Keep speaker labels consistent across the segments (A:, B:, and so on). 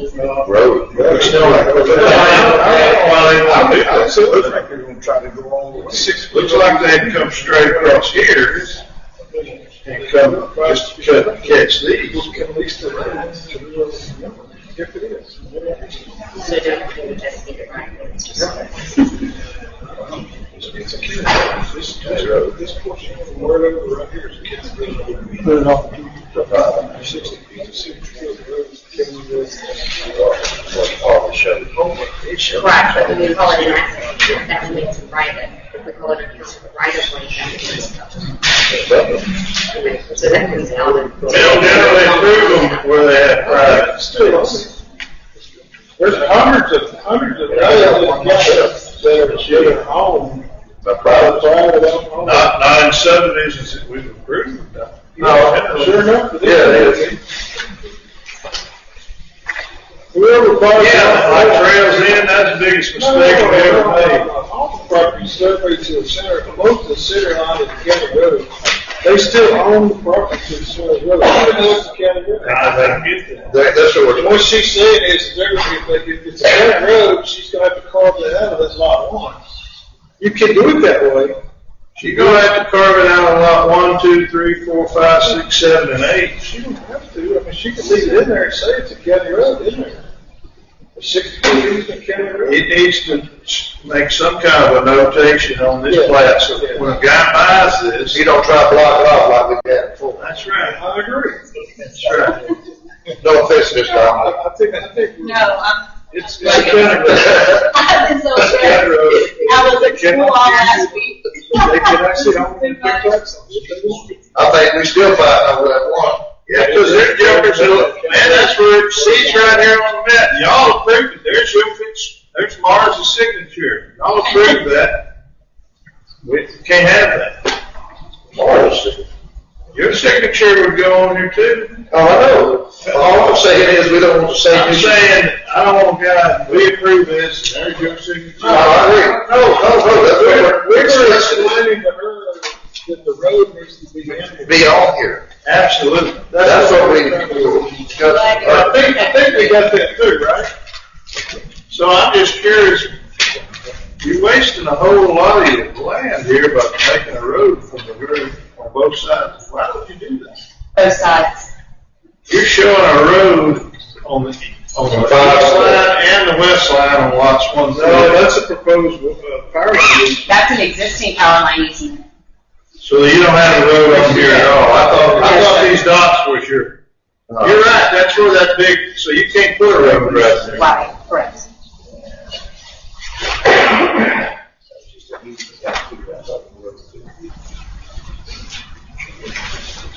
A: Road.
B: Well, you know, like,
A: Well,
B: I
A: it-
B: I said, looks like they're gonna try to go all the way.
A: Six, looks like they'd come straight across here and come, just cut, and catch these.
B: At least the roads to the, if it is.
C: So don't we just get it right? It's just-
B: It's a kid's road. This, this road, this portion from where it over right here is a kid's road. Put it off. Sixty feet, sixty feet of road, kid's road.
C: Right, but when we call it an accident, that means private. If we call it a use of right of way, that means. Okay, So that means out of.
A: They'll never improve them where they have private streets. There's hundreds of, hundreds of. My private. Not, not in subdivisions that we've approved.
B: No, Uh, sure enough, it is.
A: Yeah, it is.
B: Whoever bought it.
A: Yeah, like trails in, that's the biggest mistake we ever made.
B: All the property surveyed to the center, most of the center line of the county road, they still own the property to the center of the road, even though it's a county road.
A: I don't get that.
D: that's what
B: What she's saying is, there, if they- if it's a county road, she's gonna have to carve that out of that lot one. You can do it that way.
A: You're gonna have to carve it out on lot one, two, three, four, five, six, seven, and eight.
B: She don't have to, I mean, she can leave it in there and say it's a county road, isn't it? Sixty feet of county road.
A: It needs to s- make some kind of a notation on this
B: Yeah.
A: plat, so that when a guy buys this.
D: You don't try to block it off like we had before.
A: That's right,
B: I agree.
A: that's right.
D: No offense, Mr. Allen.
B: I think, I think.
E: No, I'm,
B: It's,
A: It's a
B: it's
A: county road.
E: I was so
A: It's a county
E: stressed.
A: road.
E: I was
A: They
E: at school
A: cannot
E: all
A: use
E: last week.
B: they can actually own the big trucks.
D: I think we still fighting over that one.
A: Yeah, because they're jokers, they're like, man, that's where it sees right here on the map, y'all approved it, there's your fix, there's Mars' signature, y'all approved that. We can't have that. Your signature would go on here too.
D: Oh, I know. All I'm saying is we don't want to say.
A: I'm saying, I don't want God, we approve this, and there's your signature.
D: No, I agree. No, no, no, that's
A: We're,
D: what
A: we're
D: we're discussing.
A: explaining
B: The road, that the road needs to be handled.
D: Be on here.
A: Absolutely.
D: That's what we, we were discussing.
A: I think, I think we got that too, right? So I'm just curious, you're wasting a whole lot of your land here by making a road from the road on both sides. Why would you do that?
E: Both sides.
A: You're showing a road on the, on the east line and the west line on lots one through.
B: No, that's a proposed, uh, power solution.
E: That's an existing power line easement.
A: So you don't have a road on here at all. I thought, I thought these dots was your, you're right, that's where that big, so you can't put a road right there.
E: Right, correct.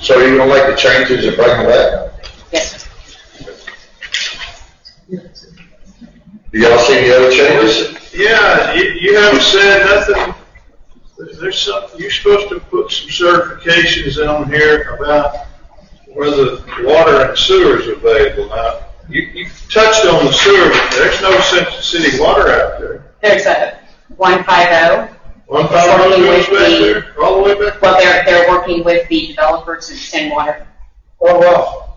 D: So you don't like the changes and bring them back?
E: Yes, sir.
D: Do y'all see any other changes?
A: Yeah, you, you haven't said nothing, there's some, you're supposed to put some certifications on here about whether water and sewer is available. Now, you, you touched on the sewer, but there's no Central City water out there.
E: There's a one five oh.
A: One power line goes back there, all the way back.
E: Well, they're, they're working with the developer to extend water.
B: Oh, wow.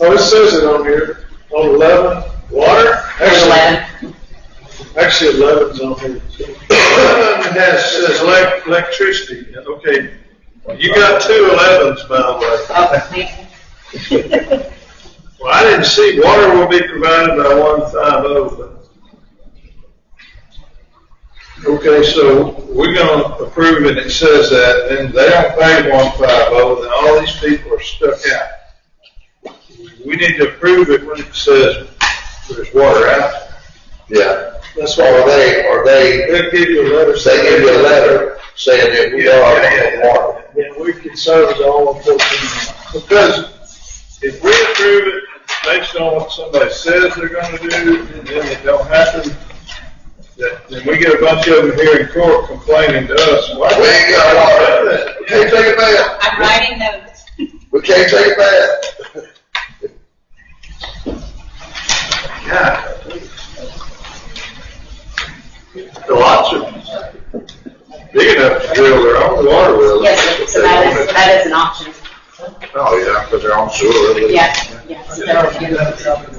B: Oh, it says it on here, on eleven,
A: Water?
E: There's eleven.
B: actually eleven's on here. too.
A: Eleven has, says elec- electricity, okay. You got two elevens, by the way.
E: Oh, man.
A: Well, I didn't see water will be provided by one five oh, but. Okay, so we're gonna approve it, it says that, and they don't pay one five oh, then all these people are stuck out. We need to approve it when it says there's water out.
D: Yeah.
B: That's
D: Or
B: why.
D: they, or they,
B: They'll give you a letter.
D: they give you a letter saying that we are on water.
B: Yeah, we can serve it all on fourteen.
A: Because if we approve it based on what somebody says they're gonna do, and then it don't happen, that, then we get a bunch of them here in court complaining to us, why
D: We
A: didn't
D: ain't
A: you
D: got
A: do
D: water.
A: that?
D: We can't take it back.
E: I'm writing notes.
D: We can't take it back.
A: Yeah. The lots are big enough to drill their own water well.
E: Yes, sir. so that is, that is an option.
D: Oh, yeah, because they're on sewer.
E: Yes, yes.
B: Yeah, I'll do that.